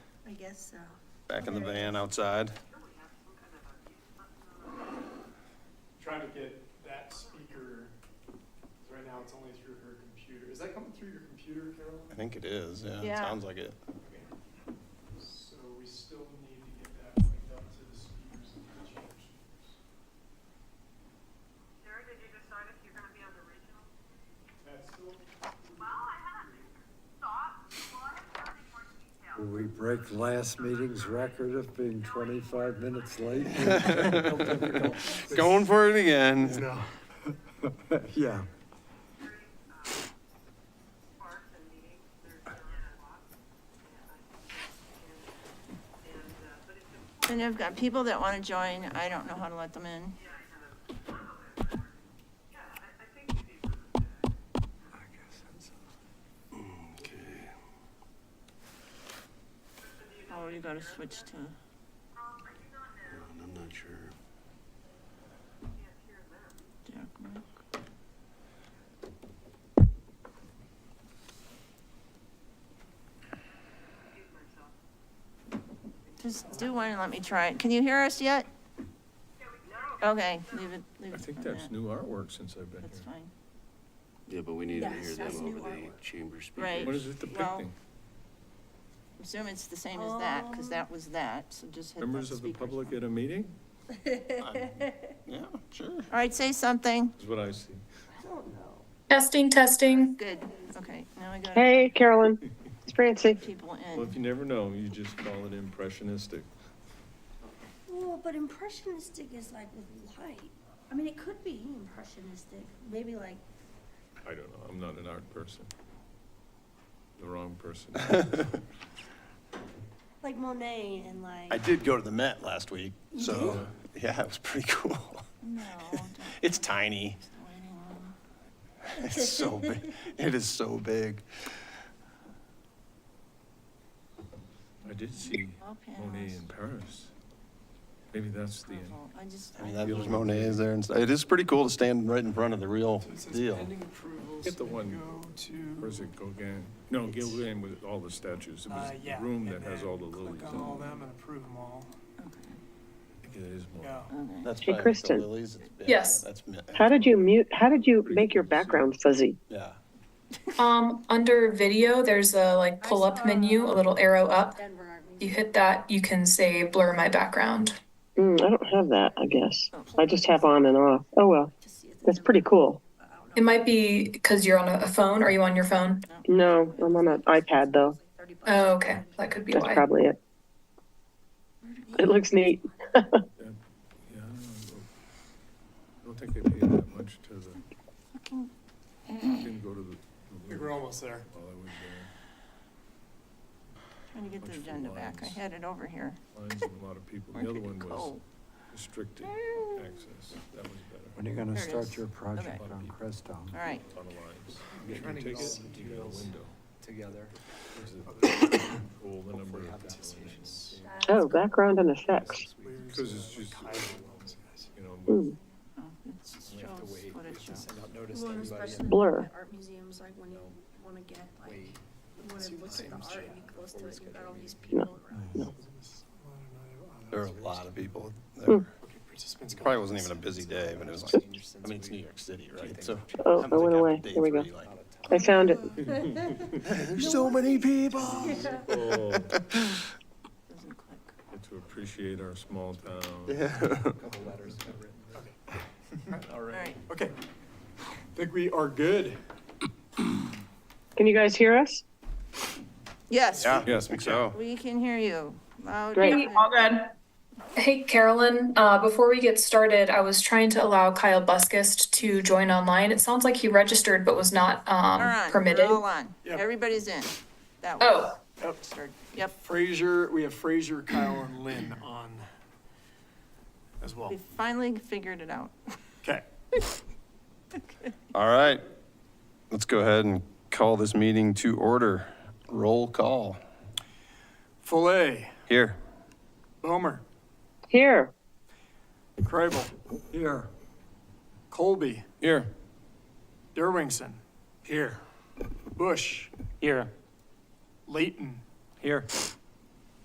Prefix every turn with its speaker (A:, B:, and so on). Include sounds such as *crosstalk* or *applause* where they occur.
A: guess so.
B: back in the van outside.
C: trying to get that speaker, 'cause right now it's only through her computer. Is that coming through your computer,
B: I
C: Carolyn?
B: think it is, yeah, it
D: Yeah.
B: sounds like it. *laughs*
C: Okay. So we still need to get that linked up to the speakers and the changed.
E: Sarah, did you decide if you're gonna be on the regional?
C: That's still,
E: Well, I haven't thought, well, I haven't heard any more detail.
F: Will we break last meeting's record of being 25 minutes late?
B: Going for it again.
C: no.
F: *laughs*
E: Very,
F: Yeah.
E: um, sparse and meeting, there's not a lot. And I think that's- And, and, uh, but it's important,
D: And I've got people that want to join, I don't know how to let them in.
E: yeah, I know. Yeah, I, I think you do.
D: Oh, you gotta switch to,
E: Um, I do not know,
G: I'm not sure.
E: I can't hear them.
D: Jack Mark.
E: Excuse myself.
D: Just do one and let me try it. Can you hear us yet?
E: No,
D: Okay, leave it, leave it.
H: I think
D: on
H: that's
D: that.
H: new artwork since I've been
D: That's
H: here.
D: fine.
G: Yeah, but we need to
A: Yes,
G: hear
A: that's
G: them
A: new
G: over the
A: artwork.
G: chamber speaker.
D: Right.
H: What is it
D: Well-
H: depicting?
D: Assume it's the same as that, because that was that, so just hit the
H: Members of the
D: speakers
H: public
D: one.
H: at a meeting?
B: Yeah, sure.
D: All right, say something.
H: Is what I see.
I: Testing, testing.
D: Good, okay, now we got
I: Hey, Carolyn. It's Francie.
D: people
H: Well, if you
D: in.
H: never know, you just call it impressionistic.
A: Well, but impressionistic is like with light. I mean, it could be impressionistic, maybe like,
H: I don't know, I'm not an art person. The wrong
C: *laughs*
H: person.
A: like Monet and like.
B: I did go to the Met last week, so, yeah, it was pretty cool.
D: No, don't
B: It's tiny,
D: do anyone.
B: it's *laughs* so big, it is so big.
H: I did see
D: All
H: Monet
D: panels.
H: in Paris. Maybe that's the,
D: Approval. I just.
B: I mean, that was Monet's there and stuff. It is pretty cool to stand right in front of the real
C: So it says
B: deal.
C: pending approvals.
H: Get the
C: and
H: one.
C: Go
H: or
C: to,
H: is it Gauguin? No, Gauguin with all the statues. It was
C: uh,
H: the
C: yeah.
H: room
C: and
H: that has
C: then
H: all the
C: Click
H: lilies. in
C: on
H: it.
C: all them and approve them all.
H: I think It is
C: Go.
H: more.
D: Okay.
B: That's
I: Hey,
B: probably the
I: Kristen.
B: lilies. It's- yeah,
I: Yes.
B: That's, me-
I: How did you mute? How did you make your background fuzzy?
B: yeah.
I: Um, under video, there's a like pull up menu, a little arrow up.
A: Denver Art Museum.
I: You hit that, you can say blur my background. Hmm, I don't have that, I guess. I just have on and off. Oh well,
A: Just see if
I: that's
A: they-
I: pretty cool.
A: I don't know.
J: It might be because you're on a a phone. Are you on your phone?
I: No, I'm on an iPad though.
A: It's like 30 bucks.
J: Oh, okay. That could be
I: That's
J: why.
I: probably it. It looks neat.
H: Yeah, I don't know. I don't think they paid that much to the, didn't go to the-
C: I
H: the.
C: think We're almost there.
H: while I was there.
D: Trying to get the
H: Bunch of
D: agenda back. I
H: lines.
D: had it over here.
H: lines and a lot of people.
D: Where
H: The other
D: did it
H: one was
D: go?
H: restricting access. That was better.
F: When are you going
D: There
F: to
D: it is.
F: start your
D: Okay.
F: project on Crestone?
D: All right.
H: A lot of lines.
G: We're
H: You
G: trying to get
H: take
G: all
H: it,
G: the
H: you got a
G: materials
H: window.
G: Together.
H: There's a- *coughs* All the number of people in it,
I: Oh, background and effects.
H: Because it's just- you know, with
I: Ooh,
D: Oh, it shows
G: We have to wait.
D: what it
G: to
D: shows.
G: send out notice
A: You
G: to
A: want
G: everybody.
A: especially
I: Blur.
A: at Art museums, like when you wanna get, like,
G: Wait.
A: you wanna
G: Two
A: look at the
G: times,
A: art and
G: yeah,
A: be close to
G: before
A: it,
G: we
A: you've got all
G: schedule a
A: these
G: meeting.
A: people around.
B: There were a lot of people.
I: Hmm.
B: There
C: Participants.
B: probably wasn't even a busy day, but it was like, I mean, it's New York City, right? So.
I: Oh,
B: I
I: it
B: don't
I: went
B: think
I: away.
B: after day
I: There we go.
B: three, like,
I: I found it.
B: There's so
D: *laughs*
B: many people.
H: people
D: Doesn't click.
H: to appreciate our small town.
B: *laughs* *laughs* Yeah.
G: Couple letters got written.
C: All
D: All
C: right.
D: right.
C: Okay. I think we are good.
I: Can you guys hear us?
D: Yes,
H: Yes, I think so.
D: we can hear you. Loud.
I: Great.
D: and
J: All good. Hey, Carolyn, uh, before we get started, I was trying to allow Kyle Buskist to join online. It sounds like he registered but was not
D: We're
J: um,
D: on,
J: permitted.
D: we're all on.
C: Yep.
D: Everybody's in. That was
J: Oh.
D: registered. Yep,
C: Fraser, we have Fraser, Kyle, and Lynn on as well.
D: we finally figured it out.
C: Okay.
B: All right. Let's go ahead and call this meeting to order. Roll call.
C: Fillet,
B: Here.
C: Bomer,
I: Here.
C: Krabel,
F: Here.
C: Colby,
B: Here.
C: Derwingson. Here. Bush. Here. Leighton.
B: Here.